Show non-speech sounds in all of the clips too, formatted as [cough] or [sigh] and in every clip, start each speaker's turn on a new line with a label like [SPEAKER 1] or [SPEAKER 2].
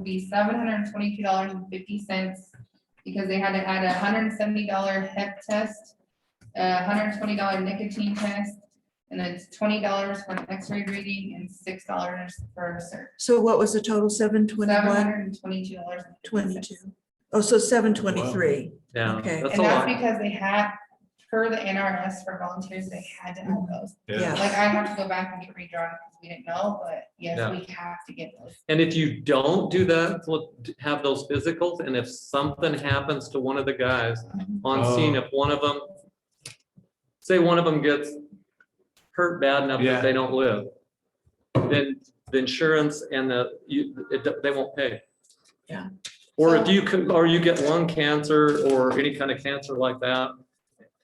[SPEAKER 1] be seven hundred and twenty-two dollars and fifty cents. Because they had to add a hundred and seventy dollar hep test, a hundred and twenty dollar nicotine test. And then it's twenty dollars for an x-ray reading and six dollars for a search.
[SPEAKER 2] So what was the total? Seven
[SPEAKER 1] Seven
[SPEAKER 2] twenty-one,
[SPEAKER 1] hundred and twenty-two dollars.
[SPEAKER 2] twenty-two? Oh, so seven twenty-three.
[SPEAKER 3] Yeah,
[SPEAKER 2] Okay.
[SPEAKER 3] that's
[SPEAKER 1] And
[SPEAKER 3] a
[SPEAKER 1] that's
[SPEAKER 3] lot.
[SPEAKER 1] because they had, per the NRS for volunteers, they had to have those.
[SPEAKER 2] Yeah.
[SPEAKER 1] Like I have to go back and get redrawn because we didn't know, but yes,
[SPEAKER 3] Yeah.
[SPEAKER 1] we have to get those.
[SPEAKER 3] And if you don't do that, look, have those physicals, and if something happens to one of the guys
[SPEAKER 2] Mm-hmm.
[SPEAKER 3] on scene, if one of them, say one of them gets hurt bad enough
[SPEAKER 4] Yeah.
[SPEAKER 3] that they don't live, then the insurance and the, you, it, they won't pay.
[SPEAKER 2] Yeah.
[SPEAKER 3] Or if you can, or you get lung cancer or any kind of cancer like that,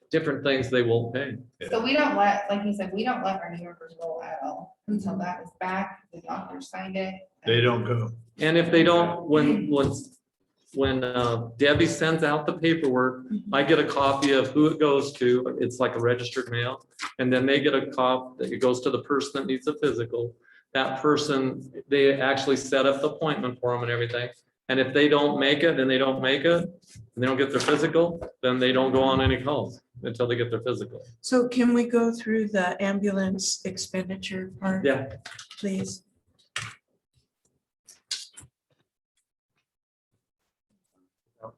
[SPEAKER 3] different things they won't pay.
[SPEAKER 1] So we don't let, like you said, we don't let our New Yorkers roll at all until that is back, the doctor signed it.
[SPEAKER 4] They don't go.
[SPEAKER 3] And if they don't, when, when, when uh, Debbie sends out the paperwork, I get a copy of who it goes to. It's like a registered mail. And then they get a cop that it goes to the person that needs a physical. That person, they actually set up the appointment for them and everything. And if they don't make it, then they don't make it, and they don't get their physical, then they don't go on any calls until they get their physical.
[SPEAKER 2] So can we go through the ambulance expenditure part,
[SPEAKER 3] Yeah.
[SPEAKER 2] please?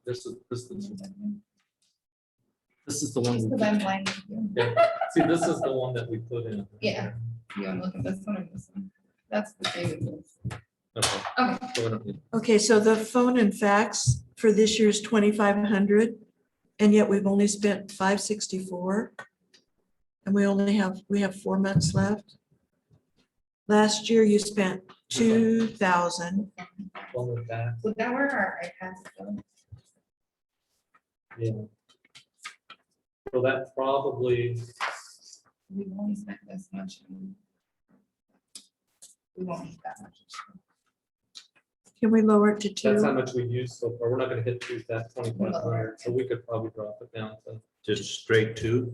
[SPEAKER 3] This is, this is, this is the one.
[SPEAKER 1] Because I'm blind.
[SPEAKER 3] See, this is the one that we put in.
[SPEAKER 1] Yeah. You want to look at this one or this one? That's the David one.
[SPEAKER 3] Okay.
[SPEAKER 1] Okay.
[SPEAKER 3] So we don't need-
[SPEAKER 2] Okay, so the phone and fax for this year's twenty-five hundred, and yet we've only spent five sixty-four. And we only have, we have four months left. Last year you spent two thousand.
[SPEAKER 3] One with that.
[SPEAKER 1] Would that where our iPads go?
[SPEAKER 3] So that probably,
[SPEAKER 1] We've only spent this much. and We won't need that much.
[SPEAKER 2] Can we lower it to
[SPEAKER 3] that's how
[SPEAKER 2] two?
[SPEAKER 3] much we used so far. We're not gonna hit two, that twenty-five hundred, so we could probably drop it down to
[SPEAKER 4] Just straight to,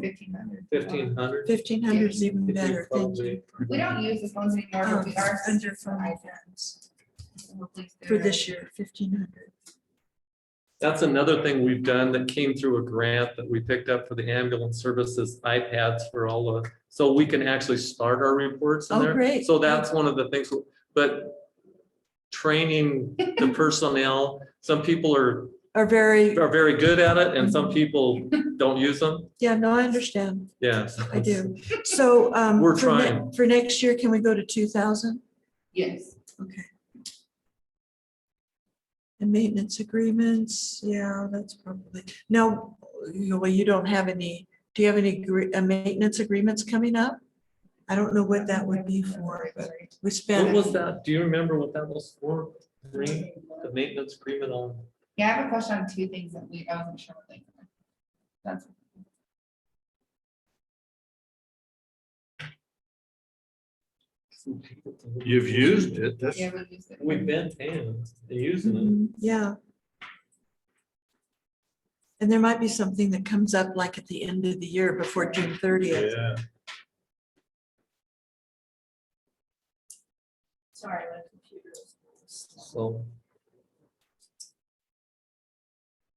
[SPEAKER 1] Fifteen hundred.
[SPEAKER 3] fifteen hundred.
[SPEAKER 2] Fifteen hundred is even better, thank you.
[SPEAKER 1] We don't use the phones anymore, but we are.
[SPEAKER 2] Um, Under phone and fax for this year, fifteen hundred.
[SPEAKER 3] That's another thing we've done that came through a grant that we picked up for the ambulance services iPads for all of, so we can actually start our reports in
[SPEAKER 2] Oh,
[SPEAKER 3] there.
[SPEAKER 2] great.
[SPEAKER 3] So that's one of the things, but training
[SPEAKER 2] [laughs]
[SPEAKER 3] the personnel, some people are
[SPEAKER 2] Are very,
[SPEAKER 3] are very good at it and
[SPEAKER 2] [laughs]
[SPEAKER 3] some people don't use them.
[SPEAKER 2] yeah, no, I understand,
[SPEAKER 3] Yes.
[SPEAKER 2] I do. So. um,
[SPEAKER 3] We're
[SPEAKER 2] for ne-
[SPEAKER 3] trying.
[SPEAKER 2] For next year, can we go to two thousand?
[SPEAKER 1] Yes.
[SPEAKER 2] Okay. And maintenance agreements, yeah, that's probably, now, you know, well, you don't have any, do you have any gre- uh, maintenance agreements coming up? I don't know what that would be for, but we
[SPEAKER 3] What
[SPEAKER 2] spent,
[SPEAKER 3] was that? Do you remember what that was for? Green, the maintenance agreement on,
[SPEAKER 1] Yeah, I have a question on two things that we, I wasn't sure. what they were. That's
[SPEAKER 4] you've used it, that's,
[SPEAKER 1] Yeah, we used it.
[SPEAKER 3] we've been paying, and using
[SPEAKER 2] Mhm, yeah. And there might be something that comes up like at the end of the year before June thirtieth.
[SPEAKER 4] yeah,
[SPEAKER 1] Sorry, my computer. is-
[SPEAKER 3] it, so.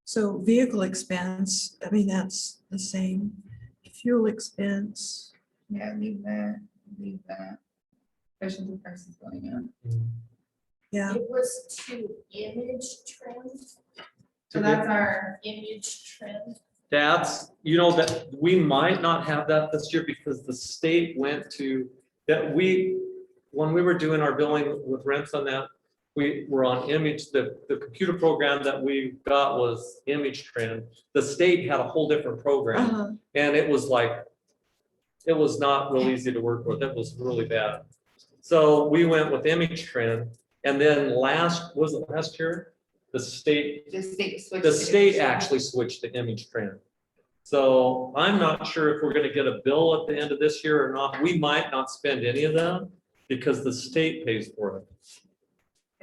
[SPEAKER 2] So vehicle expense, I mean, that's the same, fuel expense.
[SPEAKER 1] Yeah, leave that, leave that. Especially the prices going up.
[SPEAKER 2] Yeah,
[SPEAKER 5] It was to image trim,
[SPEAKER 1] So that's our,
[SPEAKER 5] image trim.
[SPEAKER 3] That's, you know, that, we might not have that this year because the state went to, that we, when we were doing our billing with rents on that, we were on image, the, the computer program that we got was image trend. The state had a whole different program
[SPEAKER 2] uh-huh,
[SPEAKER 3] and it was like, it was not real easy to work with. It was really bad. So we went with image trend and then last, was it last year? The state
[SPEAKER 1] the state switched.
[SPEAKER 3] the
[SPEAKER 1] it.
[SPEAKER 3] state actually switched to image print. So I'm not sure if we're gonna get a bill at the end of this year or not. We might not spend any of them because the state pays for it.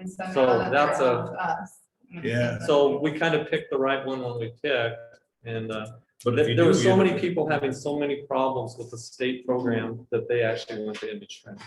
[SPEAKER 1] And somehow
[SPEAKER 3] so
[SPEAKER 1] that
[SPEAKER 3] that's a-
[SPEAKER 1] helps us.
[SPEAKER 4] Yeah.
[SPEAKER 3] So we kind of picked the right one when we picked. And uh,
[SPEAKER 4] but if you
[SPEAKER 3] there
[SPEAKER 4] do
[SPEAKER 3] there were so
[SPEAKER 4] use
[SPEAKER 3] many
[SPEAKER 4] it,
[SPEAKER 3] people having so many problems with the state program that they actually went to image print.